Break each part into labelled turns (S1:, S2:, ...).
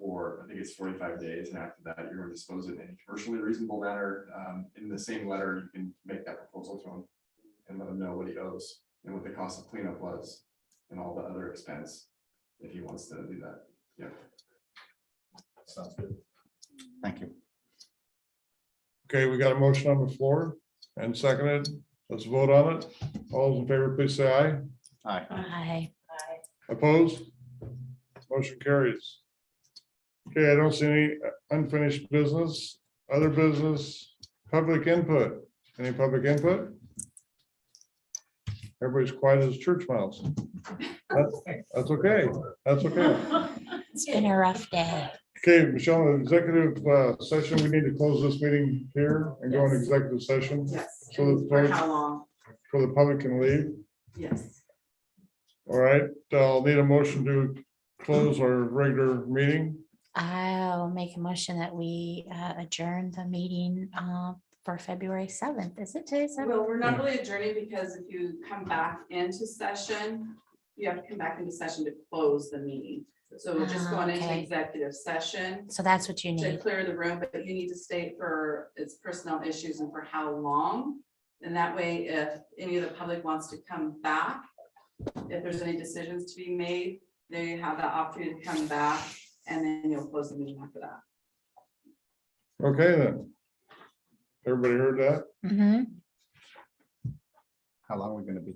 S1: for, I think it's forty-five days, and after that, you're going to dispose it in a commercially reasonable manner. Um, in the same letter, you can make that proposal to him and let him know what he owes and what the cost of cleanup was and all the other expense, if he wants to do that, yeah. Sounds good.
S2: Thank you.
S3: Okay, we got a motion on the floor and seconded. Let's vote on it. All those in favor, please say aye.
S2: Aye.
S4: Aye.
S3: Opposed? Motion carries. Okay, I don't see any unfinished business, other business, public input. Any public input? Everybody's quiet as church mouse. That's that's okay. That's okay.
S4: It's been a rough day.
S3: Okay, Michelle, executive uh, session, we need to close this meeting here and go into
S5: Yes.
S3: executive session
S5: Yes,
S3: So
S5: and
S3: the
S5: for
S3: vote-
S5: how long?
S3: for the public can leave.
S5: Yes.
S3: All right, I'll need a motion to close our regular meeting.
S4: I'll make a motion that we uh, adjourn the meeting uh, for February seventh. Is it today? seventh?
S5: Well, we're not really adjourning because if you come back into session, you have to come back into session to close the meeting. So we're just
S4: Ah,
S5: going into
S4: okay.
S5: executive session
S4: So that's what you
S5: to
S4: need.
S5: clear the room, but you need to state for its personnel issues and for how long. And that way, if any of the public wants to come back, if there's any decisions to be made, they have the opportunity to come back and then you'll close the meeting after that.
S3: Okay, then. Everybody heard that?
S4: Mhm.
S2: How long are we gonna be?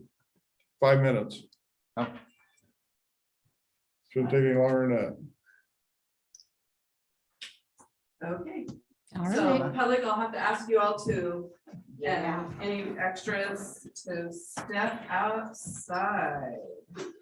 S3: Five minutes.
S2: Oh.
S3: Shouldn't take any longer than that.
S5: Okay.
S4: All right.
S5: So public, I'll have to ask you all to, yeah, any extras to step outside.